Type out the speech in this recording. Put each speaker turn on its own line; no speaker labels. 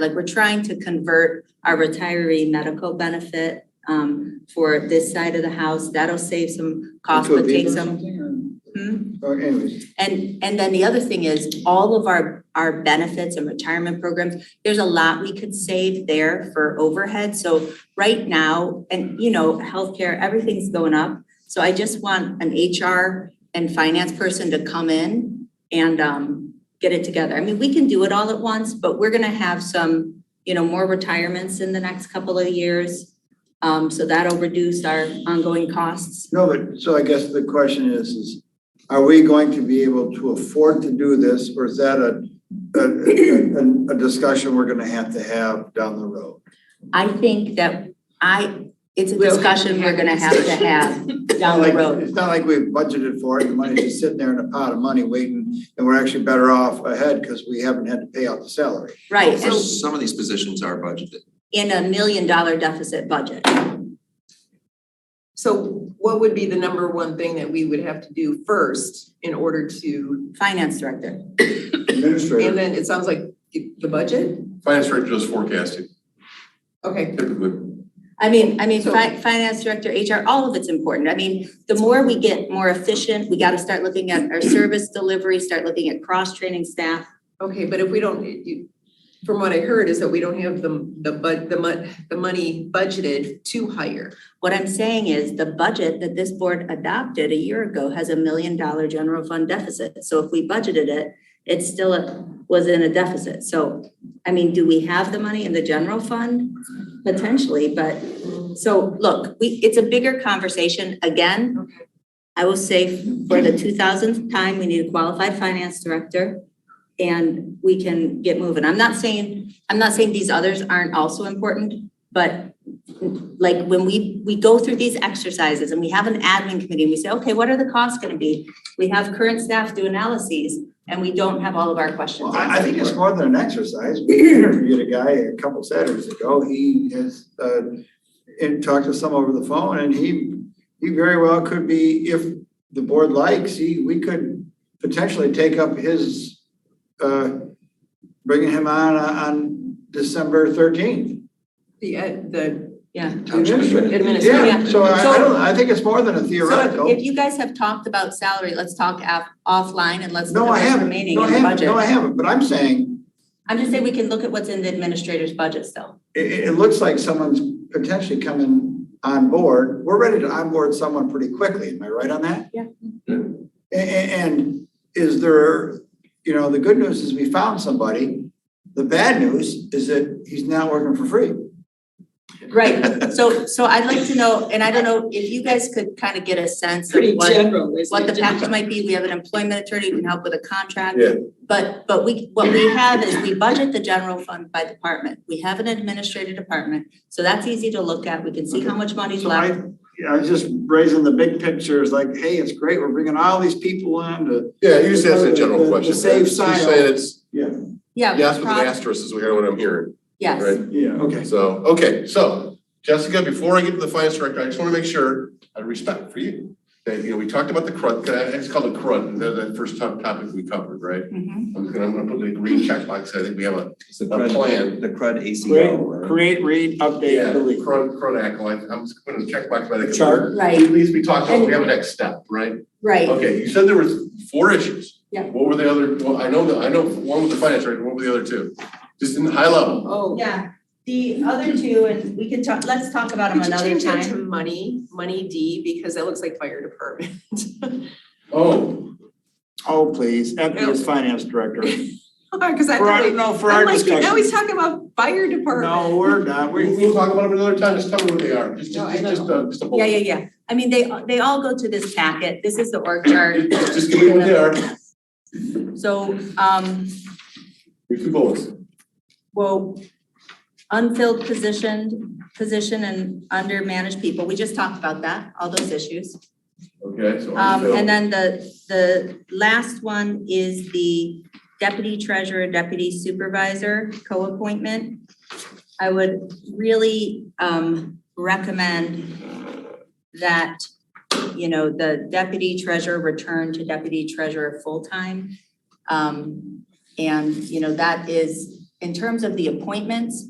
like we're trying to convert our retiree medical benefit um for this side of the house. That'll save some cost,
Into a
but take
beaver or
some.
something,
Hmm?
or- or Oh, anyways,
And and then the other thing is, all of our our benefits and retirement programs, there's a lot we could save there for overhead. So right now, and you know, healthcare, everything's going up. So I just want an HR and finance person to come in and um get it together. I mean, we can do it all at once, but we're gonna have some, you know, more retirements in the next couple of years. Um, so that'll reduce our ongoing costs.
no, but, so I guess the question is, is are we going to be able to afford to do this, or is that a, a, a, a discussion we're gonna have to have down the road?
I think that I, it's a
We'll have to
discussion we're
have
gonna
a
have to have down the
Like,
road.
It's not like we've budgeted for it, the money's just sitting there in a pot of money waiting, and we're actually better off ahead, because we haven't had to pay out the salary.
Right,
So
and
some of these positions are budgeted.
in a million dollar deficit budget.
So what would be the number one thing that we would have to do first in order to,
Finance director,
and
Administrator,
then it sounds like the budget?
Finance director does forecasting
Okay,
typically.
I mean, I mean,
So-
fi- finance director, HR, all of it's important. I mean, the more we get more efficient, we gotta start looking at our service delivery, start looking at cross-training staff.
okay, but if we don't, you, from what I heard is that we don't have the, the bud, the mon, the money budgeted to hire.
What I'm saying is the budget that this board adopted a year ago has a million dollar general fund deficit. So if we budgeted it, it still a- was in a deficit. So, I mean, do we have the money in the general fund? Potentially, but, so look, we, it's a bigger conversation. Again,
Okay.
I will say for the two thousandth time, we need a qualified finance director and we can get moving. I'm not saying, I'm not saying these others aren't also important, but like when we, we go through these exercises and we have an admin committee, and we say, okay, what are the costs gonna be? We have current staff do analyses and we don't have all of our questions
well, I, I think it's
answered.
more than an exercise, we interviewed a guy a couple Saturdays ago, he has, uh, and talked to some over the phone, and he, he very well could be, if the board likes, he, we could potentially take up his, uh, bringing him on, on December thirteenth.
The, ed- the
Yeah.
administrator.
Yeah, so I, I don't, I think it's more than a
So
theoretical.
if you guys have talked about salary, let's talk af- offline and let's
No,
look at
I
what's
haven't,
remaining
no,
in
I
the
haven't,
budget.
no, I haven't, but I'm saying,
am just saying we can look at what's in the administrator's budget still.
it, it, it looks like someone's potentially coming on board. We're ready to onboard someone pretty quickly, am I right on that?
Yeah.
A- a- and is there, you know, the good news is we found somebody. The bad news is that he's not working for free.
Right, so, so I'd like to know, and I don't know if you guys could kind of get a sense of what.
general, isn't
what the
it?
package might be, we have an employment attorney who can help with a contract.
Yeah.
But, but we, what we have is we budget the general fund by department, we have an administrative department, so that's easy to look at, we can see how much money's
So I,
left.
yeah, I was just raising the big picture, it's like, hey, it's great, we're bringing all these people in to.
Yeah, you just asked a
The-
general
the
question.
save
She's
side.
saying it's
Yeah.
yes with an
prob-
asterisk is what I'm hearing,
Yes,
right?
Yeah, okay.
So, okay, so Jessica, before I get to the finance director, I just want to make sure I have respect for you. That, you know, we talked about the crud, that- it's called a crud, and that, that first top topic we covered, right?
Mhm.
I'm gonna, I'm gonna put the green checkbox, I think we have a,
The
crud-
The crud
Create,
ACO,
create, read,
yeah,
update, delete.
crud, crud acolyte, I'm just putting a checkbox by the.
Chart.
At
right,
least we talked about, we have a next step, right?
right,
Okay, you said there was four issues.
Yeah.
What were the other, well, I know that, I know one was the finance director, what were the other two? Just in high level.
Oh.
yeah, the other two, and we can talk, let's talk about them
Could you
another
change that
time.
to money, money D, because that looks like fire department?
Oh,
Oh, please, Effie is finance director.
Cause I
For
thought
our,
we,
no, for our
I'm like, now
discussion.
he's talking about fire department.
No, we're not,
we,
we,
we'll talk about them another time, just tell me what they are, just,
No, I
just, just, uh, just a bullet.
Yeah, yeah, yeah, I mean, they, they all go to this packet, this is the org chart,
Just just give me what they are,
so, um,
here's two bullets.
Well, unfilled position, position and undermanaged people, we just talked about that, all those issues.
Okay, so.
Um, and then the, the last one is the deputy treasurer, deputy supervisor co-appointment. I would really, um, recommend that, you know, the deputy treasurer return to deputy treasurer full-time. Um, and, you know, that is in terms of the appointments,